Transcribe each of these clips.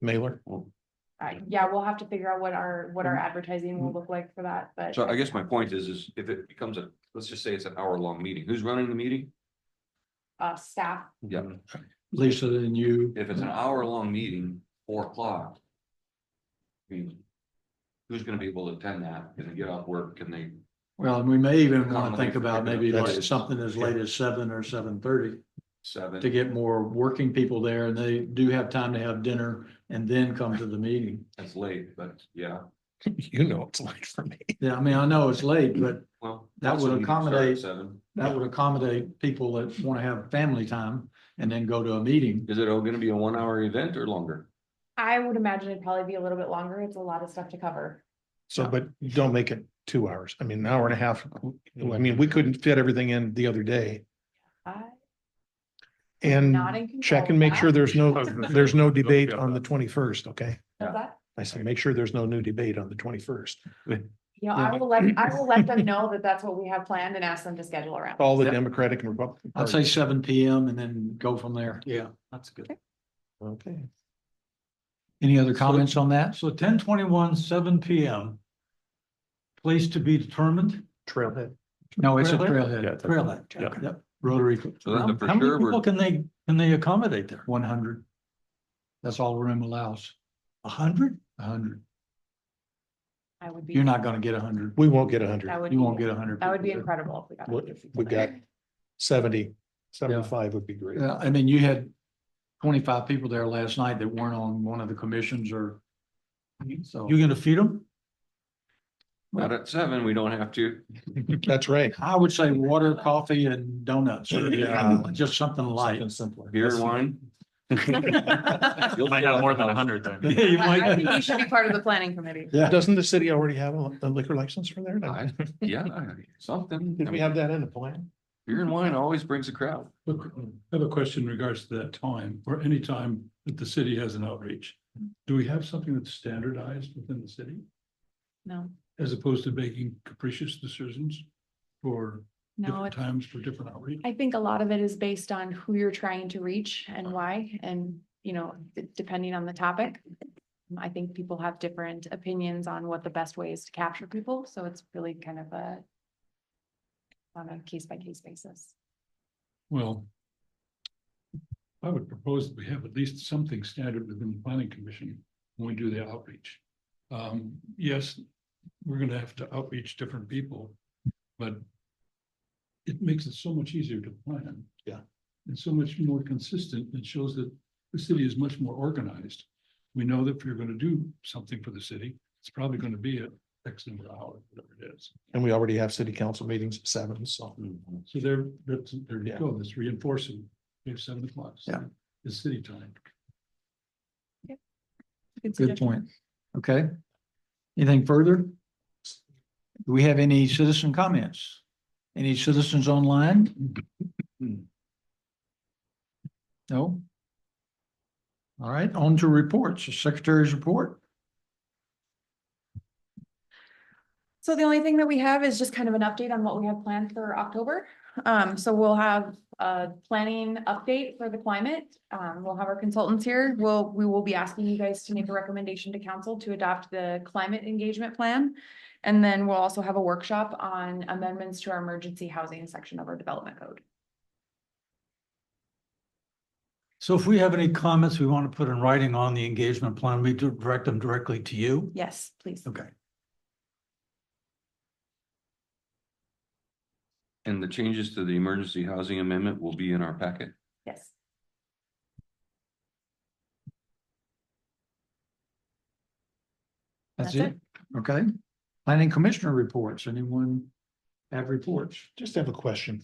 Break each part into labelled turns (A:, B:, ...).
A: mailer?
B: Uh, yeah, we'll have to figure out what our, what our
C: Mm-hmm.
B: advertising will look like for that, but.
D: So I guess my point is, is if it becomes a, let's just say it's an hour long meeting, who's running the meeting?
B: Uh, staff,
D: Yeah.
A: Lisa and you.
D: If it's an hour long meeting, four o'clock. I mean. Who's gonna be able to attend that? Can they get off work? Can they?
C: Well, and we may even want
D: Commonly
C: to think about
D: pick up
C: maybe like
D: places.
C: something as late as seven or seven thirty to
D: Seven,
C: get more working people there and they do have time to have dinner and then come to the meeting.
D: that's late, but yeah,
A: You know, it's like for me.
C: Yeah, I mean, I know it's late, but
D: well.
C: That would
D: also you can start at
C: accommodate-
D: Seven.
C: that would accommodate people that want to have family time and then go to a meeting.
D: Is it all gonna be a one hour event or longer?
B: I would imagine it'd probably be a little bit longer. It's a lot of stuff to cover.
A: So, but don't make it two hours. I mean, an hour and a half. I mean, we couldn't fit everything in the other day
B: I
A: and
B: not in control
A: check
B: of
A: and make
B: that.
A: sure there's no, there's no debate
E: Yeah.
A: on the twenty-first, okay?
B: What's that?
A: I said, make sure there's no new debate on the twenty-first.
B: You know, I
A: Yeah.
B: will let, I will let them know that that's what we have planned and ask them to schedule around.
A: All the
E: Yep.
A: Democratic and Republican.
C: I'd say
A: parties.
C: seven P M and then go from there.
E: Yeah, that's good.
A: Okay.
C: Any other comments on that?
E: So ten twenty-one, seven P M. Place to be determined,
A: Trailhead.
C: No, it's a
E: Trailhead?
C: trailhead.
E: trailhead.
A: Yeah.
C: Yep, Rotary.
D: So then
C: How
D: for
C: how many
D: sure we're-
C: people can they, can they accommodate there? One hundred. That's all room allows,
E: A hundred?
C: a hundred.
B: I would be.
C: You're not gonna get a hundred.
A: We won't get a hundred.
B: That would.
C: You won't
B: be-
C: get a hundred.
B: That would be
C: people there.
B: incredible if we got.
A: We-
B: 100 people
A: we
B: there.
A: got 70, 75 would be great.
C: Yeah, I mean, you had twenty-five people there last night that weren't on one of the commissions or. So,
E: You gonna feed them?
D: Not at seven, we don't have to.
A: That's right.
C: I would say water, coffee and donuts, or
A: Yeah.
C: just something light.
A: Something simpler.
D: Beer and wine.
E: You might have more than a hundred then.
C: You
B: I I
C: might-
B: think you should be part of the planning committee.
A: Doesn't the city already have a a liquor license for there? No.
D: I- Yeah, something.
A: Did
D: I
A: we
D: mean,
A: have that in the plan?
D: beer and wine always brings a crowd.
F: Look, I have a question in regards to that time, or any time that the city has an outreach. Do we have something that's standardized within the city
B: No,
F: as opposed to making capricious decisions? For
B: no,
F: different
B: it's,
F: times for different outreach?
B: I think a lot of it is based on who you're trying to reach and why, and, you know, d- depending on the topic. I think people have different opinions on what the best way is to capture people, so it's really kind of a on a case by case basis.
F: Well. I would propose that we have at least something standard within the planning commission when we do the outreach. Um, yes, we're gonna have to outreach different people, but. It makes it so much easier to plan.
A: Yeah.
F: And so much more consistent. It shows that the city is much more organized. We know that if you're gonna do something for the city, it's probably gonna be at X number of hours, whatever it is.
A: And we already have city council meetings at seven, so.
F: So there, that's, there you
A: Yeah.
F: go, that's reinforcing, we have seven o'clock.
C: Yeah.
F: It's city time.
C: Good point. Okay. Anything further? Do we have any citizen comments? Any citizens online? No? All right, on to reports, The secretary's report.
B: So the only thing that we have is just kind of an update on what we have planned for October. Um, so we'll have a planning update for the climate. Um, we'll have our consultants here. We'll, we will be asking you guys to make a recommendation to council to adopt the climate engagement plan. And then we'll also have a workshop on amendments to our emergency housing section of our development code.
E: So if we have any comments we want to put in writing on the engagement plan, we do direct them directly to you?
B: Yes, please.
E: Okay.
D: And the changes to the emergency housing amendment will be in our packet.
B: Yes.
C: That's
B: That's
C: it? Okay. Planning commissioner reports. Anyone have reports?
A: Just have a question.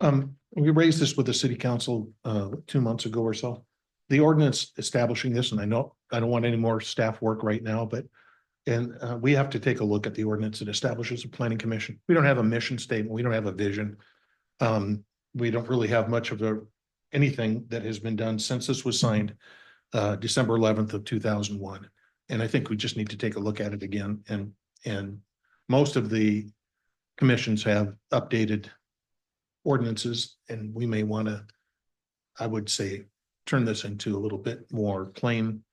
A: Um, we raised this with the city council, uh, two months ago or so. The ordinance establishing this, and I know, I don't want any more staff work right now, but. And, uh, we have to take a look at the ordinance that establishes a planning commission. We don't have a mission statement. We don't have a vision. Um, we don't really have much of a, anything that has been done since this was signed. Uh, December eleventh of two thousand one. And I think we just need to take a look at it again and, and most of the commissions have updated ordinances and we may want to, I would say, turn this into a little bit more plain